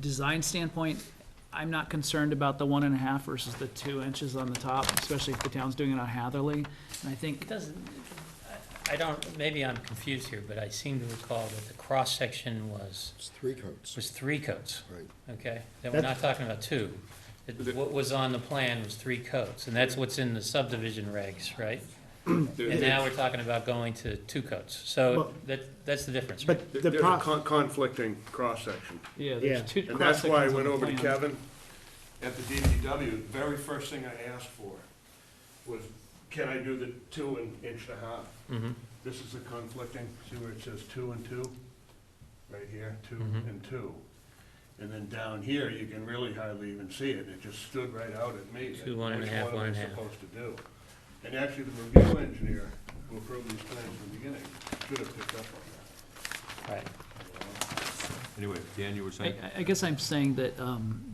design standpoint, I'm not concerned about the one and a half versus the two inches on the top, especially if the town's doing it on Hatherley. And I think, It doesn't, I I don't, maybe I'm confused here, but I seem to recall that the cross-section was, It's three coats, was three coats, right? okay? That we're not talking about two. It- What was on the plan was three coats, and that's what's in the subdivision regs, right? And There- now we're talking about going to two coats. So Well- that, that's the difference, right? But there- the There's a pro, con- conflicting cross-section, yeah, Yeah. there's two and that's why I cross-sections on went the over to plan. Kevin at the DPW, the very first thing I asked for was, can I do the two and inch and a half? Mhm. This is the conflicting, see where it says two and two? Right here, two Mhm. and two. And then down here, you can really hardly even see it, it just stood right out at me. Two, one and a half, one and a half. Which one am I supposed to do? And actually, the review engineer who approved these plans in the beginning should have picked up on Right. that. Anyway, Dan, you were I, saying? I- I guess I'm saying that, um,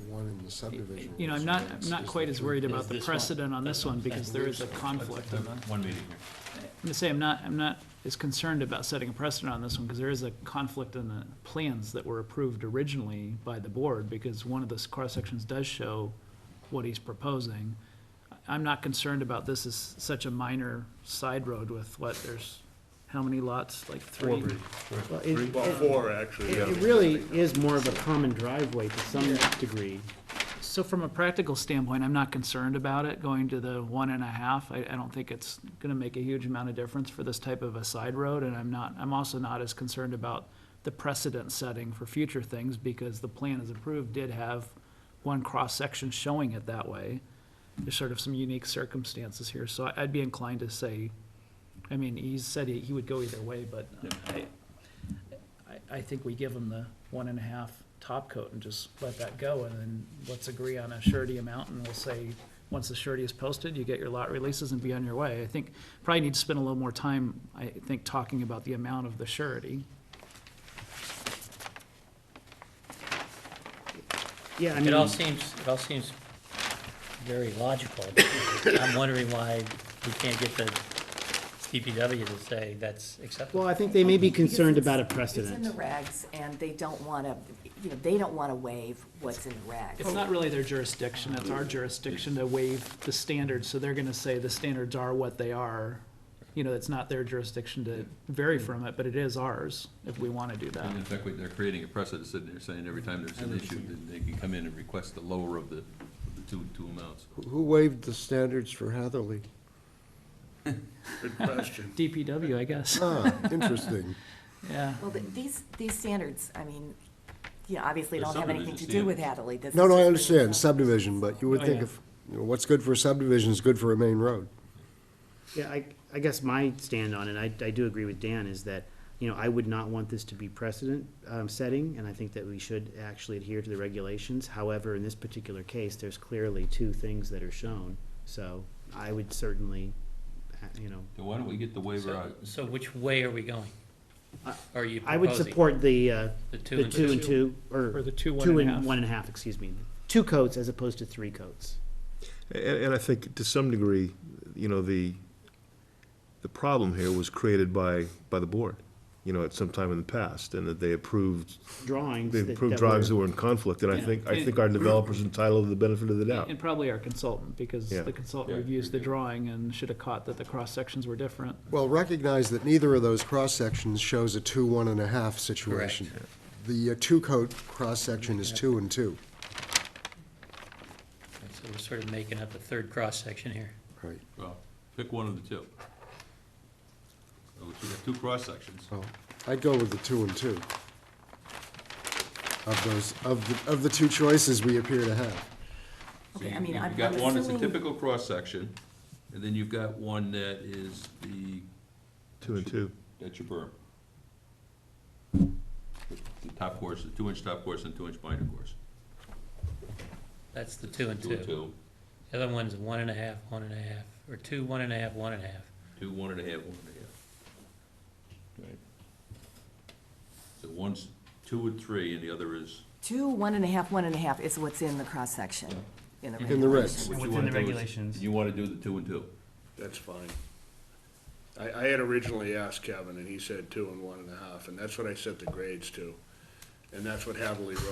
The one in the subdivision. you know, I'm was not, next, I'm not is quite the as three worried Is about the this one? precedent on this one because there is a conflict in the. One meeting here. I'm gonna say, I'm not, I'm not as concerned about setting a precedent on this one, because there is a conflict in the plans that were approved originally by the board, because one of the s- cross-sections does show what he's proposing. I- I'm not concerned about this as such a minor side road with what, there's, how many lots, like three? well, it, it- Well, four, actually. it really is more of a common driveway to some degree. So from a practical standpoint, I'm not concerned about it going to the one and a half. I, I don't think it's gonna make a huge amount of difference for this type of a side road, and I'm not, I'm also not as concerned about the precedent setting for future things, because the plan as approved did have one cross-section showing it that way. There's sort of some unique circumstances here, so I- I'd be inclined to say, I mean, he said he, he would go either way, but I, I, I think we give them the one and a half top coat and just let that go, and then let's agree on a surety amount, and we'll say, once the surety is posted, you get your lot releases and be on your way. I think, probably need to spend a little more time, I think, talking about the amount of the surety. Yeah, I It all mean, seems, it all seems very logical. I'm wondering why we can't get the DPW to say that's acceptable. well, I think they may be Because concerned it's- about a It's in the precedent. regs, and they don't want to, you know, they don't want to waive what's in the regs. It's not really their jurisdiction, it's our jurisdiction to waive the standards, so they're gonna say the standards are what they are. You know, it's not their jurisdiction to vary from it, but it is ours, if we wanna do Um, that. And in fact, we- they're creating a precedent, sitting there saying every time there's an issue, then they can come in and request the lower of the, of the two, two amounts. Who- Who waived the standards for Hatherley? Good question. DPW, I guess, Ah, interesting. yeah. Well, th- these, these standards, I mean, you know, obviously The don't have anything to do subdivision with Hadley. This No, is no, I just- understand subdivision, but you would Oh, think yeah. if, you know, what's good for a subdivision is good for a main road. Yeah, I, I guess my stand on it, I, I do agree with Dan, is that, you know, I would not want this to be precedent, um, setting, and I think that we should actually adhere to the regulations. However, in this particular case, there's clearly two things that are shown, so I would certainly, uh, you know, Then why don't we get the waiver So- out? So which way are we going? I- Are you I would proposing support the, uh, the two the and two two? and two, or. Or the two, one Two and a half. and one and a half, excuse me. Two coats as opposed to three coats. And, and I think to some degree, you know, the, the problem here was created by, by the board, you know, at some time in the past, and that they approved, Drawings. they that- approved that were- drawings that were in conflict, and I think, I think our developer's entitled to the benefit of the doubt. And probably our consultant, because Yeah. the consultant Yeah, reviews the review. drawing and should have caught that the cross-sections were different. Well, recognize that neither of those cross-sections shows a two, one and a half situation. The uh, two-coat cross-section is two and two, So we're sort of making up a third cross-section here. right? Well, pick one of the two. So We have two cross-sections. So I'd go with the two and two. Of those, of, the of the two choices we appear to have. So Okay, I you- mean, I'm- You've got I'm one that's a assuming- typical cross-section, and then you've got one that is the, Two and two. that's your berm. The top course, the two-inch top course and two-inch binder course. That's the two and Two and two. two, The other one's one and a half, one and a half, or two, one and a half, one and a half. two, one and a half, one and a half. Right. So one's two and three, and the other is Two, one and a half, one and a half is what's in the cross-section, in the In the regulations. regs. What you Within wanna the do is- regulations. You wanna do the two and two. That's fine. I, I had originally asked Kevin, and he said two and one and a half, and that's what I set the grades to. And that's what Hadley wrote